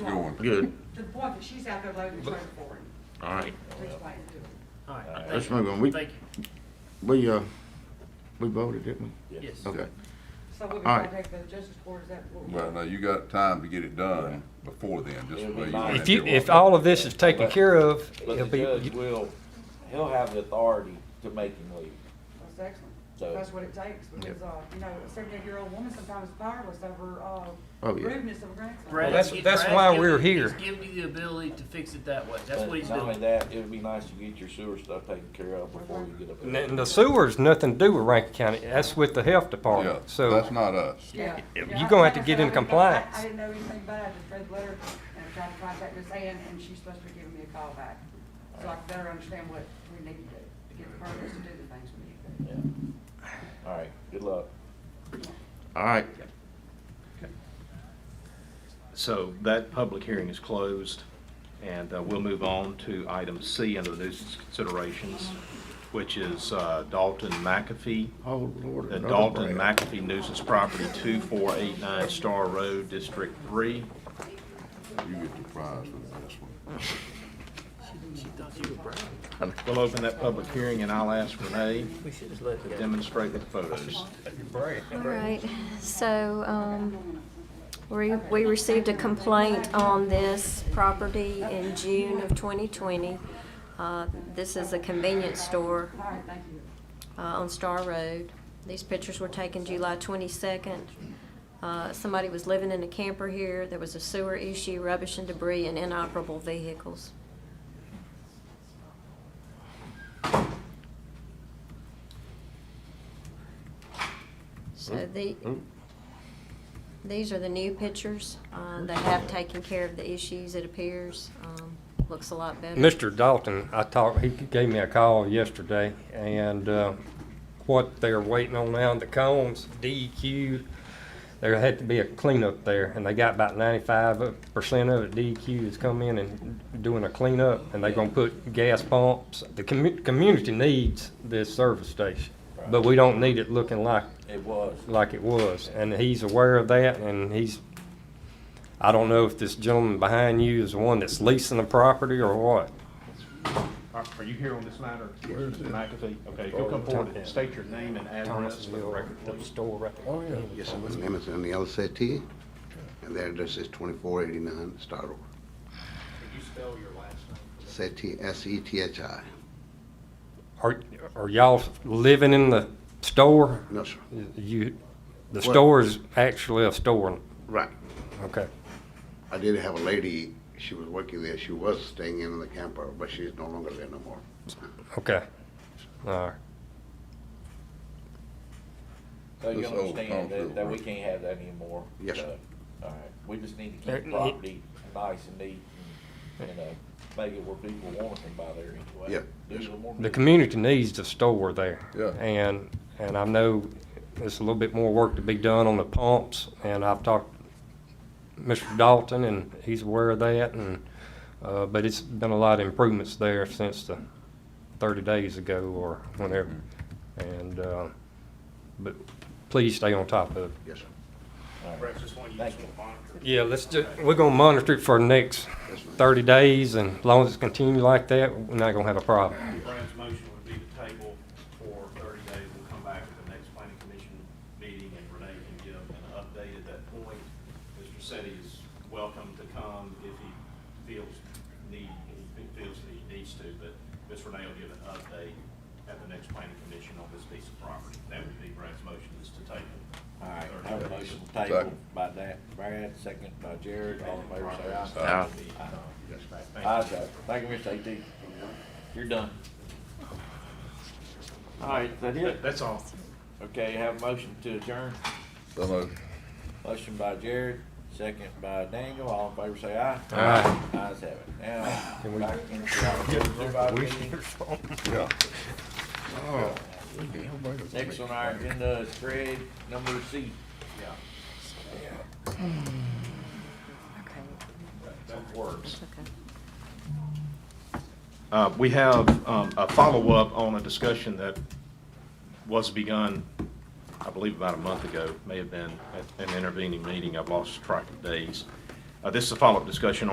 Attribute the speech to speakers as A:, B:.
A: Going.
B: Good,
C: To the point that she's out there loading the trailer for him.
B: all right.
C: Which way to do it.
D: All
B: Uh,
D: right.
B: Let's move on. We,
D: Thank
B: we, uh, we voted, didn't
D: you. Yes.
B: we? Okay.
C: So we'll be
B: All right.
C: contacted by the justice court, is that what? we're-
A: Well, now, you got time to get it done before then, just the way you want it.
E: If you, if all of this is taken care of,
F: But
E: it'll
F: the
E: be,
F: judge will, he'll have the authority to make him leave.
C: That's excellent.
F: So-
C: That's what it takes, because, uh, you know, a seventy-eight-year-old woman sometimes is powerless over, uh,
B: Oh, yeah.
C: rudeness of a grandson.
D: Brad's-
E: that's- that's
D: Brad's
E: why
D: giving
E: we're
D: you-
E: here.
D: He's giving you the ability to fix it that way. That's
F: But
D: what he's
F: Not only
D: doing.
F: that, it would be nice to get your sewer stuff taken care of before you get up
E: and
F: there.
E: and the sewer's nothing to do with Rankin County, that's with the health
A: Yeah,
E: department,
A: that's
E: so.
A: not us.
C: Yeah.
E: You're
C: Yeah, I-
E: gonna have
C: like
E: to
C: I said,
E: get in
C: I didn't know- I- I
E: compliance.
C: didn't know anything about it, I just read the letter, and I tried to contact Miss Ann, and she's supposed to be giving me a call back, so I can better understand what we need to do, to get the permits to do the things we need to do.
F: Yeah. All right, good luck.
B: All right,
G: So that public hearing is closed, and uh, we'll move on to item C under the nuisance considerations, which is uh, Dalton McAfee,
B: oh, Lord.
G: the
B: another
G: Dalton
B: Brad.
G: McAfee nuisance property, 2489 Star Road, District 3.
A: You get the prize for this one.
G: We'll open that public hearing, and I'll ask Renee to demonstrate with photos.
H: All right, so, um, we, we received a complaint on this property in June of twenty twenty. Uh, this is a convenience store, uh, on Star Road. These pictures were taken July twenty-second. Uh, somebody was living in a camper here, there was a sewer issue, rubbish and debris, and inoperable vehicles. So the, these are the new pictures. Uh, They have taken care of the issues, it appears. Um, Looks a lot better.
E: Mr. Dalton, I talked, he gave me a call yesterday, and, uh, what they're waiting on now, the cones, DEQ, there had to be a cleanup there, and they got about ninety-five percent of it, E DEQ has come in and doing a cleanup, and they're gonna put gas pumps. The commu- community needs this service station, but we don't need it looking like
F: It was.
E: like it was, and he's aware of that, and he's, I don't know if this gentleman behind you is the one that's leasing the property or what.
G: Are are you here on this matter, Mr. McAfee? Okay, if you'll come forward and state your name and address for the record, please.
E: store right there. Oh, yeah.
I: Yes, My name is Daniel Setti, and the address is 2489 Star Road.
G: Could you spell your last name?
I: Sethi, S-E-T-H-I.
E: Are, are y'all living in the store?
I: No, sir.
E: You, the
I: What?
E: store is actually a store,
I: Right.
E: okay.
I: I did have a lady, she was working there. She was staying in the camper, but she's no longer there no more.
E: Okay, all right.
F: So you
A: This old
F: understand
A: concrete
F: that, that we
A: road.
F: can't have that anymore?
I: Yes,
F: So,
I: sir.
F: All right, we just need to
E: There-
F: keep the property nice and neat and, and, uh, make it where people want to come by there anyway.
I: Yeah.
F: Do a little more
E: The community needs a store there.
A: Yeah.
E: And, and I know there's a little bit more work to be done on the pumps, and I've talked to Mr. Dalton, and he's aware of that, and, uh, but it's been a lot of improvements there since the thirty days ago or whenever. And, uh, but please stay on top of it.
I: Yes, sir.
D: Perhaps this one you
F: Thank
D: just want to monitor.
E: Yeah, let's ju, we're gonna monitor it for the next
I: Yes, ma'am.
E: thirty days, and as long as it continues like that, we're not gonna have a problem.
G: Brian's motion would be to table for thirty days. We'll come back at the next planning commission meeting and Renee can give an update at that point. Mr. Setti is welcome to come if he feels need, if he feels that he needs to, but Ms. Renee will give an update at the next planning commission on this piece of property. That would be Brad's motion is to table.
F: All right, I have a motion to table
A: Second.
F: by that, Brad, second by Jared, all in favor, say aye.
A: Aye.
F: Aye. Aye, sir. Thank you, Mr. AT. You're done. All right, is that it?
G: That's all.
F: Okay, have a motion to adjourn.
A: So moved.
F: Motion by Jared, second by Daniel, all in favor, say aye.
E: Aye.
F: Ayes have it. Now,
E: Can we-
F: back into our supervisor meeting.
A: yeah.
E: Oh,
F: Next on our agenda is Craig, number C. Yeah.
G: That works.
H: Okay.
G: Uh, We have um, a follow-up on a discussion that was begun, I believe, about a month ago, may have been at an intervening meeting, I've lost track of days. Uh, This is a follow-up discussion